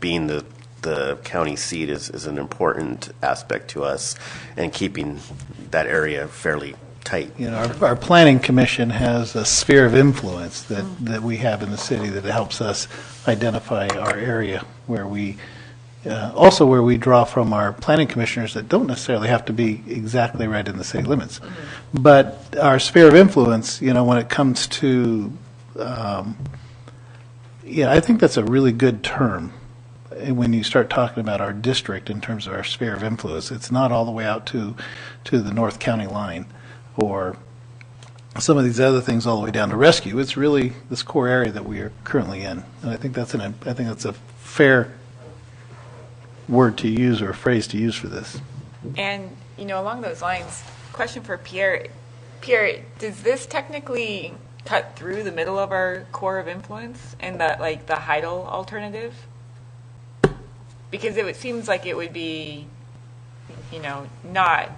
being the, the county seat is, is an important aspect to us and keeping that area fairly tight. You know, our, our planning commission has a sphere of influence that, that we have in the city that helps us identify our area where we, uh, also where we draw from our planning commissioners that don't necessarily have to be exactly right in the city limits. But our sphere of influence, you know, when it comes to, um, yeah, I think that's a really good term uh, when you start talking about our district in terms of our sphere of influence. It's not all the way out to, to the North County line or some of these other things all the way down to rescue. It's really this core area that we are currently in. And I think that's an, I think that's a fair word to use or a phrase to use for this. And, you know, along those lines, question for Pierre. Pierre, does this technically cut through the middle of our core of influence and the, like, the Heidel alternative? Because it would- seems like it would be, you know, not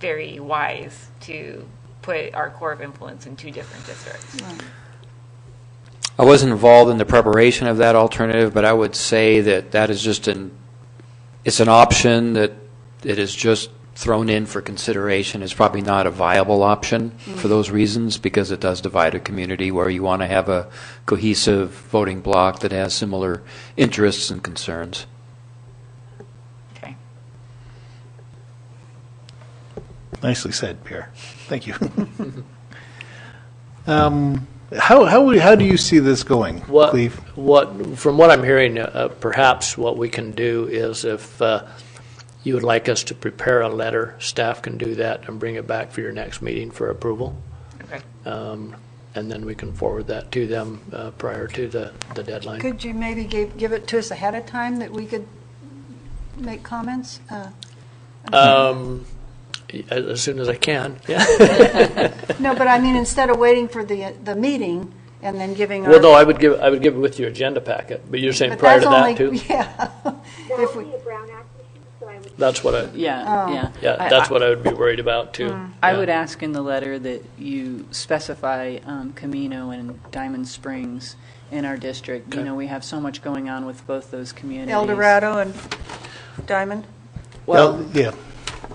very wise to put our core of influence in two different districts. I wasn't involved in the preparation of that alternative, but I would say that that is just an, it's an option that it is just thrown in for consideration. It's probably not a viable option for those reasons, because it does divide a community where you want to have a cohesive voting bloc that has similar interests and concerns. Okay. Nicely said, Pierre. Thank you. um, how, how, would- how do you see this going, What, Cleve? what, from what I'm hearing, uh, uh, perhaps what we can do is if uh, you would like us to prepare a letter, staff can do that and bring it back for your next meeting for approval. Okay. Um, And then we can forward that to them uh, prior to the, the deadline. Could you maybe give, give it to us ahead of time that we could make comments? Uh, Um, As as soon as I can, yeah. No, but I mean, instead of waiting for the, the meeting and then giving our. Well, no, I would give, I would give it with your agenda packet, but you're saying but prior to that's that only- too? Yeah. That If would we- be a Brown Act issue, so I would. That's what I, Oh. Yeah, yeah. yeah, I- that's I- Mm. what I would be worried about too. I Yeah. would ask in the letter that you specify um, Camino and Diamond Springs in our district. You know, we have so much going on with both those communities. El Dorado and Diamond? Well, yeah.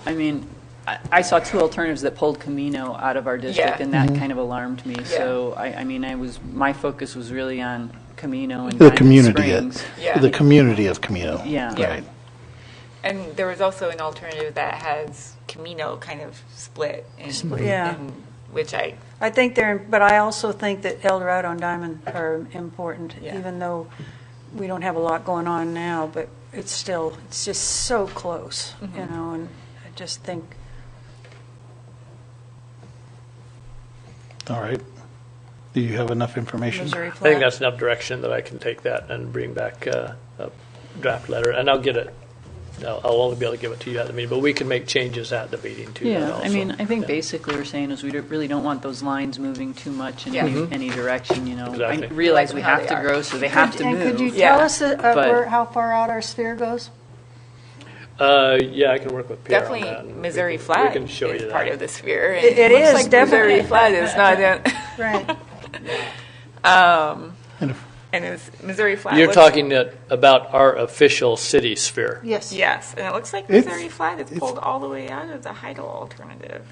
I mean, I I saw two alternatives that pulled Camino out of our district, Yeah. and Mm-hmm. that kind of alarmed me. So, I I mean, I was, my focus was really on Camino and The Diamond community, uh, Springs. Yeah. the community of Camino. Yeah. Yeah. Right. And there was also an alternative that has Camino kind of split, and, Yeah. and- which I I think they're, but I also think that El Dorado and Diamond are important, Yeah. even though we don't have a lot going on now, but it's still, it's just so close, you know, and I just think, All right. Do you have enough information? Missouri I think Flat, that's enough direction that I can take that and bring back uh, a draft letter, and I'll get it. I'll I'll only be able to give it to you at the meeting, but we can make changes at the meeting to that Yeah, also. I mean, I think Yeah. basically we're saying is we don't- really don't want those lines moving too much in Yeah. any any direction, you know. I Exactly. realize we How have they to are. grow, so they have to And could you move. tell Yeah. us uh, uh, But- where- how far out our sphere goes? Uh, yeah, I can work with Pierre on that. definitely and we Missouri can- Flat We can show is you part that. of the sphere. and It- it looks is, like definitely. Missouri Flat is not in, Right. And if- and it's Missouri Flat. You're looks- talking that- about our official city sphere. Yes. Yes, and it looks like It's- Missouri Flat is it's- pulled all the way out of the Heidel alternative.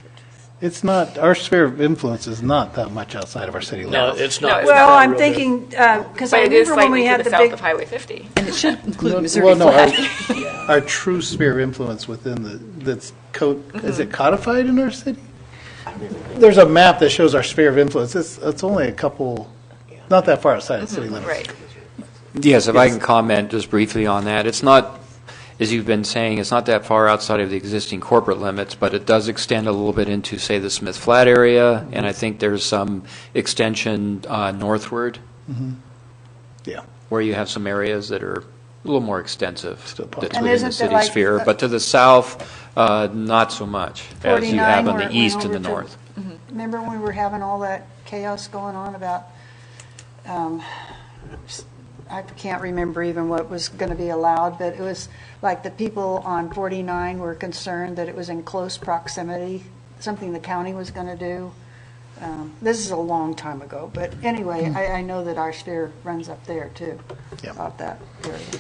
It's not, our sphere of influence is not that much outside of our city limits. No, it's not. it's it's not Well, not I'm real big. thinking, because But I it is remember when slightly we to had the the south big, of Highway 50. And it should include Missouri Well, no, Flat. our, our true sphere of influence within the, that's co, is Mm-hmm. it codified in our city? There's a map that shows our sphere of influence. It's, it's only a couple, not that far outside of Mm-hmm. city limits. Right. Yes, if I can comment just briefly on that, it's not, as you've been saying, it's not that far outside of the existing corporate limits, but it does extend a little bit into, say, the Smith Flat area, and I think there's some extension uh, northward, Mm-hmm. Yeah. where you have some areas that are a little more extensive Still possible. that's And within isn't the there city like sphere, the- but to the south, uh, not so much as you 49 have on where it the went east and over the to- north. remember when we were having all that chaos going on about, um, s- I can't remember even what was going to be allowed, but it was like the people on 49 were concerned that it was in close proximity, something the county was going to do. Um, This is a long time ago, but anyway, I, I know that our sphere runs up there too, Yeah. about that area.